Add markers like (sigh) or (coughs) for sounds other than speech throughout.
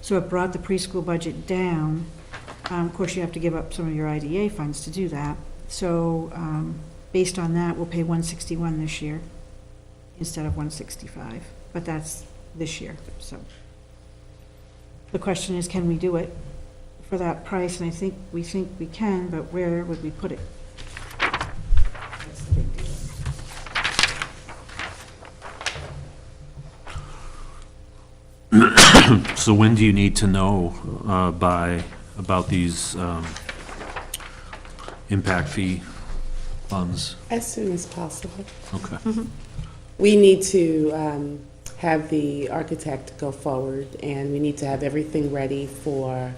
So it brought the preschool budget down. Um, Of course, you have to give up some of your IDA funds to do that. So um, based on that, we'll pay 161 this year instead of 165, but that's this year, so. The question is, can we do it for that price? And I think, we think we can, but where would we put it? That's the big deal. So when do you need to know uh, by, about these um, impact fee funds? As soon as possible. Okay, We need to um, have the architect go forward, and we need to have everything ready for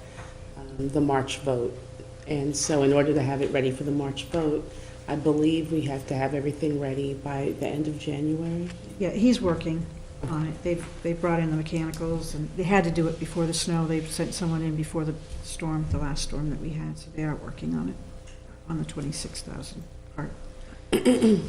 um, the March vote. And so in order to have it ready for the March vote, I believe we have to have everything ready by the end of January. Yeah, he's working on it. They've, they brought in the mechanicals, and they had to do it before the snow. They've sent someone in before the storm, the last storm that we had, so they are working on it, on the 26,000 part. (coughs)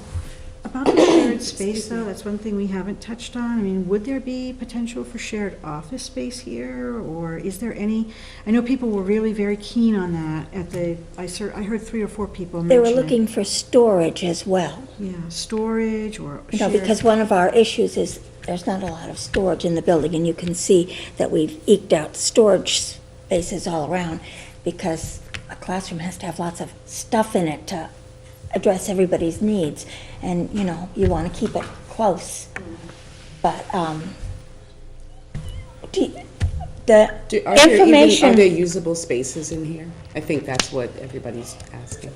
About the shared space, though, that's one thing we haven't touched on. I mean, would there be potential for shared office space here, or is there any? I know people were really very keen on that at the, I ser- I heard three or four people They mention were it. looking for storage as well, Yeah, storage or you know, shared- because one of our issues is there's not a lot of storage in the building, and you can see that we've eked out storage spaces all around because a classroom has to have lots of stuff in it to address everybody's needs, and, you know, you want to keep it close. But, um, do you- the Do- are there even- Are there information, usable spaces in here? I think that's what everybody's asking.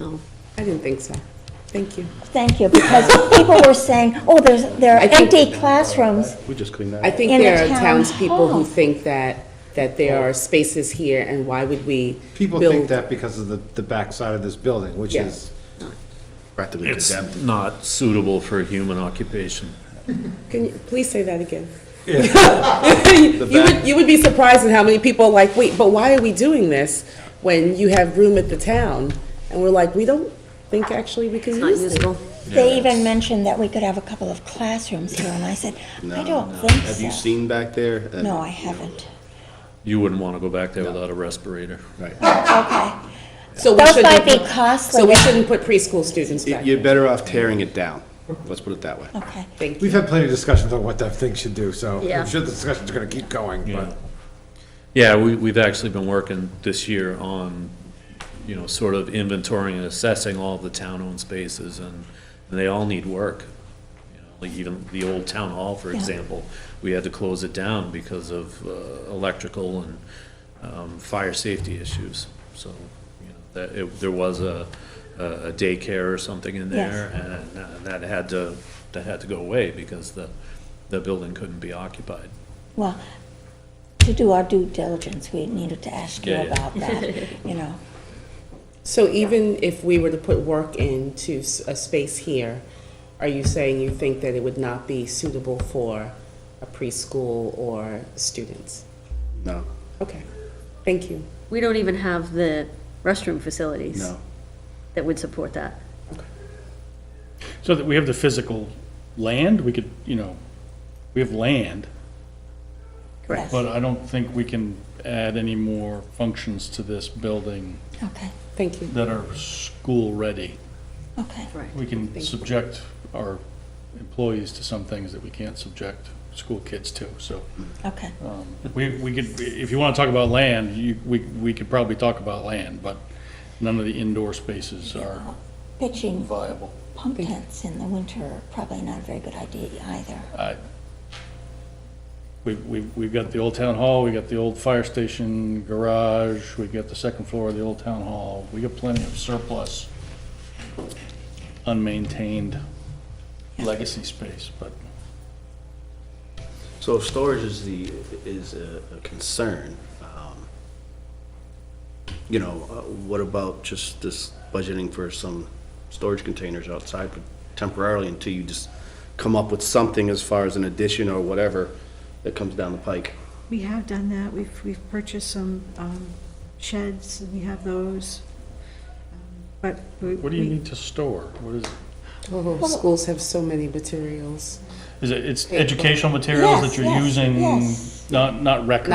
No, I didn't think so. Oh. Thank you. thank you, because people were saying, oh, there's, there are I think- empty classrooms, We just cleaned that I up. think In the there are town townspeople hall. who think that, that there are spaces here, and why would we People think build that because of the, the backside of this building, which Yeah. is practically it's condemned. not suitable for human occupation. Can you please say that again? (laughs) The You back- would, you would be surprised at how many people are like, wait, but why are we doing this when you have room at the town? And we're like, we don't think actually we can use it. They even mentioned that we could have a couple of classrooms here, and I said, I don't think so. Have you seen back there? Uh, And- No, I haven't. You wouldn't want to go back there without a respirator. Right. Okay. So we Those shouldn't might be put- costly. So we shouldn't put preschool students back. You're better off tearing it down. Let's put it that way. Okay. Thank you. We've had plenty of discussions on what that thing should do, so Yeah. I'm sure the discussions are gonna keep going, but. Yeah, we, we've actually been working this year on, you know, sort of inventorying and assessing all the town-owned spaces, and and they all need work. You know, Like even the old town hall, for Yeah. example, we had to close it down because of uh, electrical and um, fire safety issues. So, you know, that, it- there was a, a daycare or something in Yes. there, and uh, that had to, that had to go away because the, the building couldn't be occupied. Well, to do our due diligence, we needed to ask you Yeah, yeah. about (laughs) that, you know. So even if we were to put work into s- a space here, are you saying you think that it would not be suitable for a preschool or students? No, Okay, thank you. We don't even have the restroom facilities. no. That would support that. So that we have the physical land, we could, you know, we have land, Correct. but I don't think we can add any more functions to this building Okay, Thank you. that are school-ready. okay. We can subject our employees to some things that we can't subject school kids to, so. Okay, um, We, we could, if you want to talk about land, you, we, we could probably talk about land, but none of the indoor spaces are pitching viable. pump tents in the winter are probably not a very good idea either. I- We've, we've, Uh, we've got the old town hall, we got the old fire station, garage, we've got the second floor of the old town hall, we got plenty of surplus, unmaintained legacy space, but So if storage is the, is a a concern, um, you know, uh, what about just this budgeting for some storage containers outside temporarily until you just come up with something as far as an addition or whatever that comes down the pike? We have done that, we've, we've purchased some um, sheds, and we have those, Um, but we... what do you we- need to store? What is, Oh, schools have so many materials. is it, it's educational materials that Yes, you're yes, using, yes. not, not records?